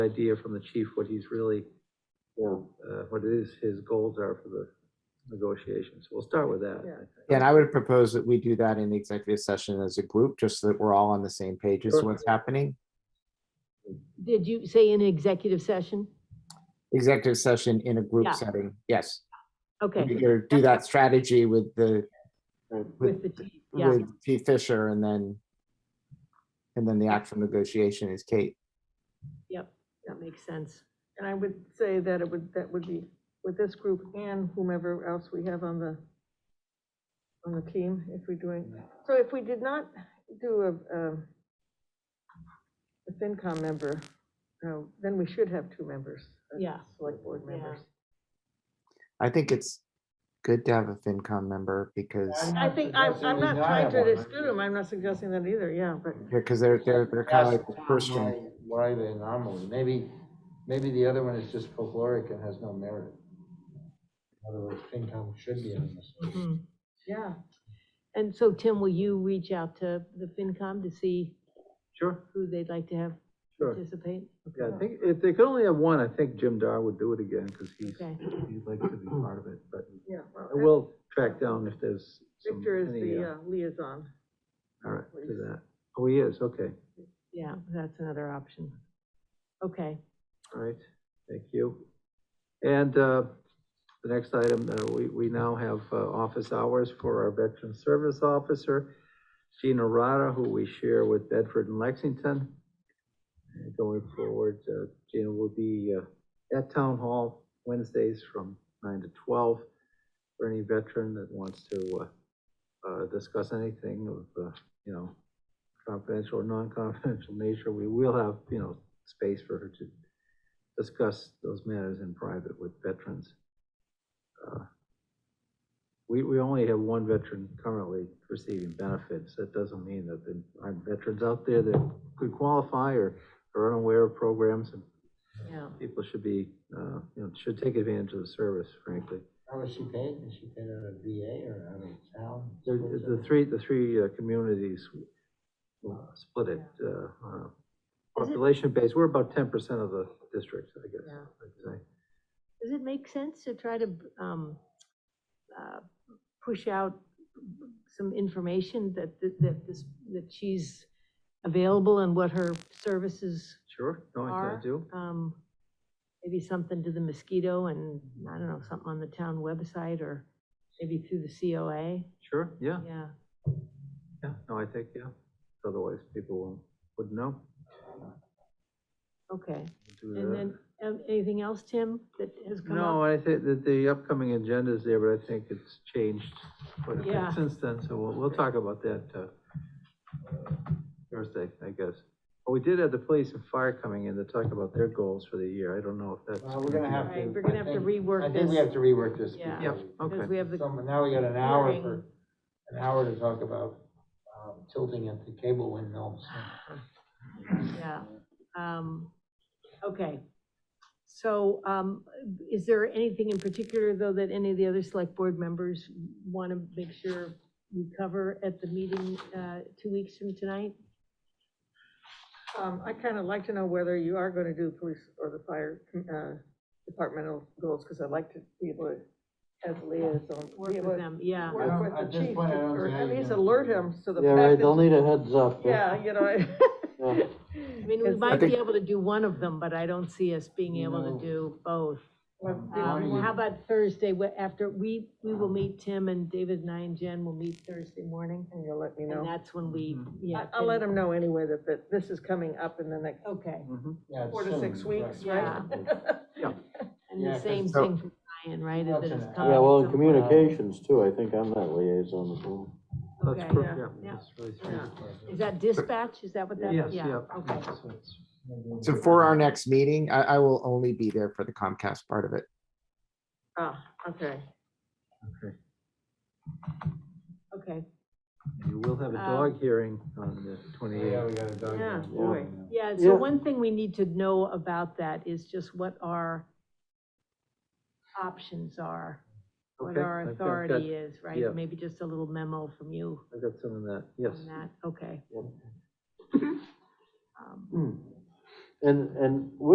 idea from the chief what he's really, or uh, what it is his goals are for the negotiations. We'll start with that. Yeah. And I would propose that we do that in the executive session as a group, just so that we're all on the same page as to Sure. what's happening. Did you say in executive session? Executive session in a Yeah. group setting, yes. Okay, Or do that strategy with the, with the, chief, yeah, with P Fisher and then, and then the actual negotiation is Kate. yep, that makes sense. And I would say that it would, that would be with this group and whomever else we have on the, on the team, if we're doing, so if we did not do a, um, a FinCom member, uh, then we should have two members. uh, Yeah. Select board Yeah. members. I think it's good to have a FinCom member because, I think, I'm, I'm not trying to exclude them, I'm not suggesting that either, yeah, but because they're, they're, they're kind of like That's the first one. why- Why the anomaly? Maybe, maybe the other one is just folkloric and has no merit. In other words, FinCom should be on this. list. Mhm. yeah, And so, Tim, will you reach out to the FinCom to see Sure, who they'd like to have sure. participate? Yeah, I think if they could only have one, I think Jim Dar would do it again, because he's, Okay. he'd like to be part of it, but yeah. I will track down if there's some. Victor is any, the uh, uh, liaison. All right, do that. Oh, he is, okay, Yeah, that's another option. Okay, all right, thank you. And, uh, the next item, uh, we, we now have, uh, office hours for our veteran service officer, Gina Rada, who we share with Bedford and Lexington. And going forward, uh, Gina will be, uh, at Town Hall Wednesdays from nine to twelve for any veteran that wants to, uh, uh, discuss anything of, uh, you know, confidential or non-confidential nature. We will have, you know, space for her to discuss those matters in private with veterans. Uh, We, we only have one veteran currently receiving benefits. That doesn't mean that there aren't veterans out there that could qualify or are unaware of programs, and yeah. people should be, uh, you know, should take advantage of the service, frankly. How was she paid? Is she paid out of VA or out of town? The, the three, the three uh, communities uh, split it, uh, on a Is it- population base, we're about ten percent of the district, I guess. Yeah. I'd say. Does it make sense to try to um, uh, push out some information that, that- that this, that she's available and what her services Sure, no, I are? I do. um, Maybe something to the mosquito and, I don't know, something on the town website or maybe through the COA? Sure, yeah, Yeah, yeah, no, I think, yeah. Otherwise, people won't, wouldn't know. okay. Do And that. then, um, anything else, Tim, that has come up? No, I think that the upcoming agenda is there, but I think it's changed quite a Yeah. bit since then, so we'll, we'll talk about that, uh, Thursday, I guess. But we did have the police and fire coming in to talk about their goals for the year. I don't know if that's. Well, we're gonna have to. Right, we're gonna I have to think- rework I think we this. have to rework this. Yeah. Yeah, because Because okay, we have the, some- Now we got an hour hearing. for, an hour to talk about um, tilting at the cable windmills. yeah, um, okay. So, um, is there anything in particular, though, that any of the other select board members want to make sure we cover at the meeting, uh, two weeks from tonight? Um, I kind of like to know whether you are going to do police or the fire, uh, departmental goals, because I'd like to be able to, as a liaison. be Work able with to them, yeah, I don't- Work at with the this chief, point, I don't or see how at you least can- alert him to the Yeah, fact right, they'll that, need a heads up. yeah, you know. Yeah. I mean, we It's- might be think- able to do one of them, but I don't see us being able No. to do both. Um, Morning. How about Thursday, wh- after, we, we will meet, Tim and David and I and Jen will meet Thursday morning, And you'll let me and know. that's when we, Mhm. yeah. I- I'll let him know anyway that, that this is coming up in the next Okay, Mhm. Yeah, it's four to six soon, weeks, right? Yeah. Yeah. and Yeah, the 'cause- same So- thing for Ryan, right? that That's it's an- coming Yeah, well, in some- communications too, I think I'm that liaison as well. Okay. That's, perfect, Yeah. yeah, Yeah. that's really Yeah. strange. Is that dispatch, is that what that? Yes, yeah, yeah. Okay, So it's- So for our next meeting, I, I will only be there for the Comcast part of it. Ah, okay. okay. okay, And You will have a Um, dog hearing on the Yeah, twenty-eighth. we got a dog. Yeah, now. boy. yeah, so Yeah. one thing we need to know about that is just what our options are, what Okay, our I've got- I've got- authority is, yeah. right? Maybe just a little memo from you I've got some of that, yes. on that, okay. Yep. Um, And, and